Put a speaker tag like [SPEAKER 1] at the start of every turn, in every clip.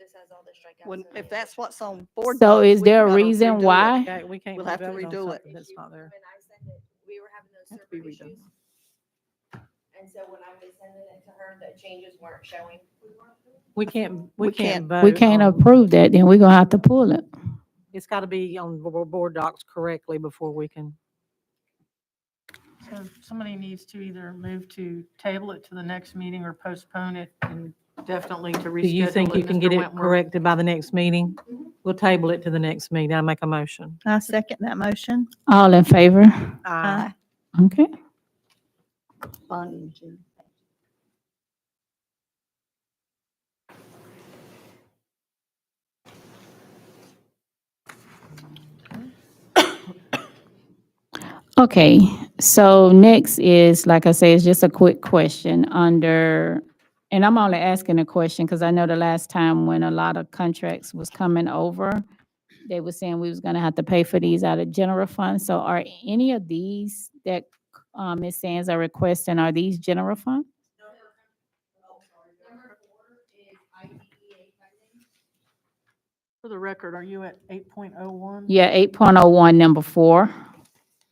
[SPEAKER 1] has all the strikeouts.
[SPEAKER 2] When,
[SPEAKER 1] so
[SPEAKER 2] if
[SPEAKER 1] they-
[SPEAKER 2] that's what's on board.
[SPEAKER 3] So
[SPEAKER 2] docs,
[SPEAKER 3] is
[SPEAKER 2] we
[SPEAKER 3] there a
[SPEAKER 2] gotta
[SPEAKER 3] reason
[SPEAKER 2] redo it.
[SPEAKER 3] why?
[SPEAKER 4] Okay, we can't.
[SPEAKER 2] We'll
[SPEAKER 4] do
[SPEAKER 2] have to
[SPEAKER 4] vote on
[SPEAKER 2] redo it.
[SPEAKER 4] something That's not there.
[SPEAKER 1] When I sent it, we were having those
[SPEAKER 4] Has to be
[SPEAKER 1] server
[SPEAKER 4] redone.
[SPEAKER 1] issues. And so when I was sending it to her, the changes weren't showing.
[SPEAKER 4] We can't,
[SPEAKER 2] We
[SPEAKER 4] we can't vote.
[SPEAKER 3] We can't
[SPEAKER 4] on-
[SPEAKER 3] approve that, then we're gonna have to pull it.
[SPEAKER 4] It's got to be on bo- bo- board docs correctly before we can.
[SPEAKER 5] So somebody needs to either move to table it to the next meeting or postpone it and definitely to reschedule.
[SPEAKER 4] Do you think you can get
[SPEAKER 5] Mr.
[SPEAKER 4] it
[SPEAKER 5] Wentworth.
[SPEAKER 4] corrected by the next meeting? We'll table it to the next meeting. I make a motion.
[SPEAKER 6] I second that motion.
[SPEAKER 3] All in favor?
[SPEAKER 6] Aye.
[SPEAKER 3] Okay. Okay, so next is, like I say, it's just a quick question under, and I'm only asking a question because I know the last time when a lot of contracts was coming over, they were saying we was gonna have to pay for these out of general funds. So are any of these that, um, Ms. Sands are requesting, are these general fund?
[SPEAKER 5] For the record, are you at eight point oh one?
[SPEAKER 3] Yeah, eight point oh one, number four.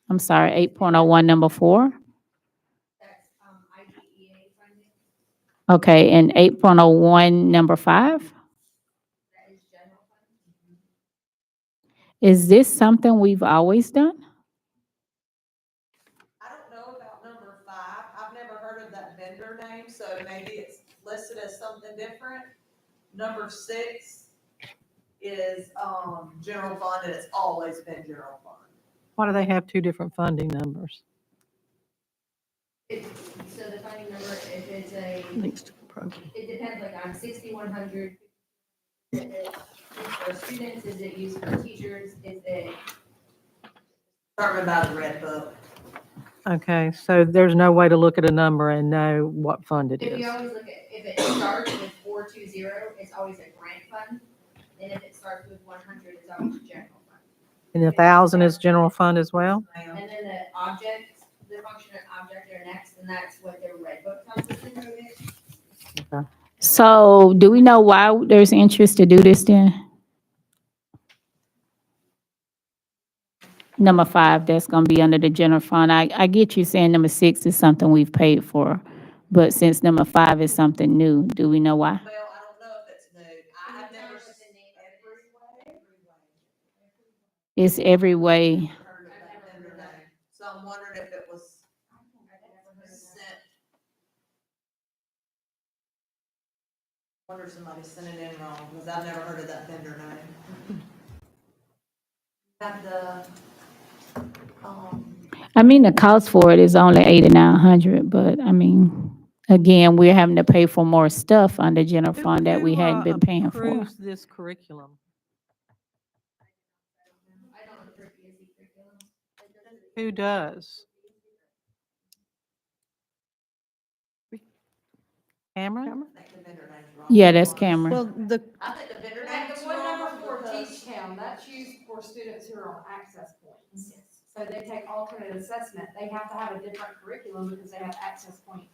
[SPEAKER 3] I'm sorry, eight point oh one, number four.
[SPEAKER 1] That's, um, IDEA funding,
[SPEAKER 3] Okay, and eight point oh one, number five?
[SPEAKER 1] that is general funding.
[SPEAKER 3] Is this something we've always done?
[SPEAKER 7] I don't know about number five. I've never heard of that vendor name, so maybe it's listed as something different. Number six is, um, general fund, and it's always been general fund.
[SPEAKER 4] Why do they have two different funding numbers?
[SPEAKER 1] It- So the funding number, if it's a,
[SPEAKER 4] Links to the program.
[SPEAKER 1] it depends, like on sixty-one hundred. Is it used for students, is it used for teachers, is it?
[SPEAKER 7] Determined by the red book.
[SPEAKER 4] Okay, so there's no way to look at a number and know what fund it
[SPEAKER 1] If
[SPEAKER 4] is.
[SPEAKER 1] you always look at, if it starts with four two zero, it's always a grant fund. And if it starts with one hundred, it's always a general fund.
[SPEAKER 4] And a thousand is general fund as well?
[SPEAKER 7] Ma'am,
[SPEAKER 1] And then the object, the function and object are next, and that's what their red book tells us to do it.
[SPEAKER 3] So do we know why there's interest to do this then? Number five, that's gonna be under the general fund. I, I get you saying number six is something we've paid for, but since number five is something new, do we know why?
[SPEAKER 7] Well, I don't know if it's new. I have never.
[SPEAKER 1] What's the name of it?
[SPEAKER 3] It's every way.
[SPEAKER 7] Heard of that vendor name. So I'm wondering if it was sent. Wonder if somebody sent it in wrong, because I've never heard of that vendor name. Got the, um,
[SPEAKER 3] I mean, the cost for it is only eighty-nine hundred, but I mean, again, we're having to pay for more stuff under general
[SPEAKER 4] Who-
[SPEAKER 3] fund that we
[SPEAKER 4] who,
[SPEAKER 3] hadn't
[SPEAKER 4] uh,
[SPEAKER 3] been paying for.
[SPEAKER 4] Approves this curriculum?
[SPEAKER 1] I don't know for PSC curriculum. It doesn't-
[SPEAKER 4] Who does? Cameron?
[SPEAKER 7] I think the vendor name's wrong.
[SPEAKER 3] Yeah, that's
[SPEAKER 7] Cameron.
[SPEAKER 3] Cameron.
[SPEAKER 6] Well, the,
[SPEAKER 7] I think the vendor
[SPEAKER 8] Like
[SPEAKER 7] name's
[SPEAKER 8] the one
[SPEAKER 7] wrong.
[SPEAKER 8] number for
[SPEAKER 7] because-
[SPEAKER 8] Teach Town, that's used for students who are on access points. So they take alternate assessment, they have to have a different curriculum because they have access point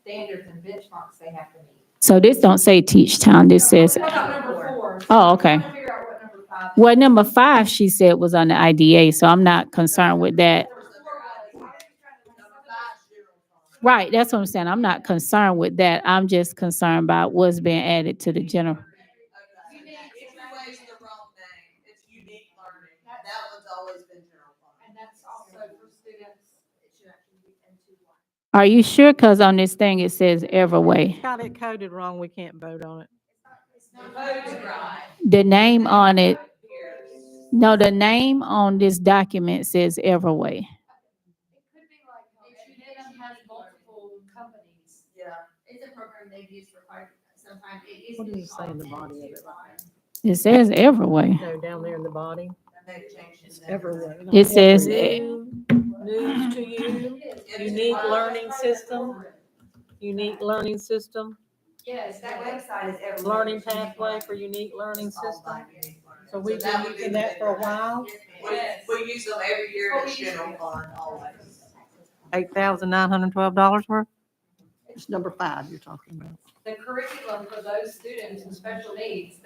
[SPEAKER 8] standards and benchmarks they have to meet.
[SPEAKER 3] So this don't say Teach Town, this says,
[SPEAKER 8] What about number four?
[SPEAKER 3] oh, okay.
[SPEAKER 8] I'm trying to figure out what number five is.
[SPEAKER 3] Well, number five, she said was on the IDA, so I'm not concerned with that.
[SPEAKER 7] Of course, the vendor name's wrong. Number five's zero fund.
[SPEAKER 3] Right, that's what I'm saying. I'm not concerned with that. I'm just concerned about what's being added to the general.
[SPEAKER 7] Okay. If you raise the wrong name, it's unique learning, that one's always been general fund.
[SPEAKER 8] And that's also for students.
[SPEAKER 1] It should actually be M two one.
[SPEAKER 3] Are you sure? Cause on this thing, it says Everway.
[SPEAKER 4] Got it coded wrong, we can't vote on it.
[SPEAKER 3] The name on it,
[SPEAKER 7] Here's-
[SPEAKER 3] no, the name on this document says Everway.
[SPEAKER 8] It could be like, if you didn't have multiple companies.
[SPEAKER 7] Yeah.
[SPEAKER 1] It's a program they've used for quite some time. It used
[SPEAKER 4] What
[SPEAKER 1] to
[SPEAKER 4] does
[SPEAKER 1] be
[SPEAKER 4] it say in
[SPEAKER 1] called
[SPEAKER 4] the body of
[SPEAKER 1] M2
[SPEAKER 4] it?
[SPEAKER 1] one.
[SPEAKER 3] It says Everway.
[SPEAKER 4] No, down there in the body.
[SPEAKER 7] And they changed it.
[SPEAKER 3] It says,
[SPEAKER 4] News to you, unique
[SPEAKER 1] Uh,
[SPEAKER 4] learning system, unique learning system,
[SPEAKER 8] Yes,
[SPEAKER 7] That
[SPEAKER 8] that way.
[SPEAKER 7] website is everywhere.
[SPEAKER 4] learning pathway for unique learning
[SPEAKER 7] It's all
[SPEAKER 4] system.
[SPEAKER 7] about unique learning.
[SPEAKER 4] So we've been
[SPEAKER 7] that would be
[SPEAKER 4] using
[SPEAKER 7] the
[SPEAKER 4] that for a
[SPEAKER 7] vendor name.
[SPEAKER 4] while.
[SPEAKER 1] Yes, ma'am.
[SPEAKER 8] Yes.
[SPEAKER 7] We, we use them every year
[SPEAKER 8] What
[SPEAKER 7] in
[SPEAKER 8] we
[SPEAKER 7] the
[SPEAKER 8] used to
[SPEAKER 7] general
[SPEAKER 8] do.
[SPEAKER 7] fund, always.
[SPEAKER 4] Eight thousand nine hundred twelve dollars worth?
[SPEAKER 2] It's number five you're talking about.
[SPEAKER 8] The curriculum for those students with special needs,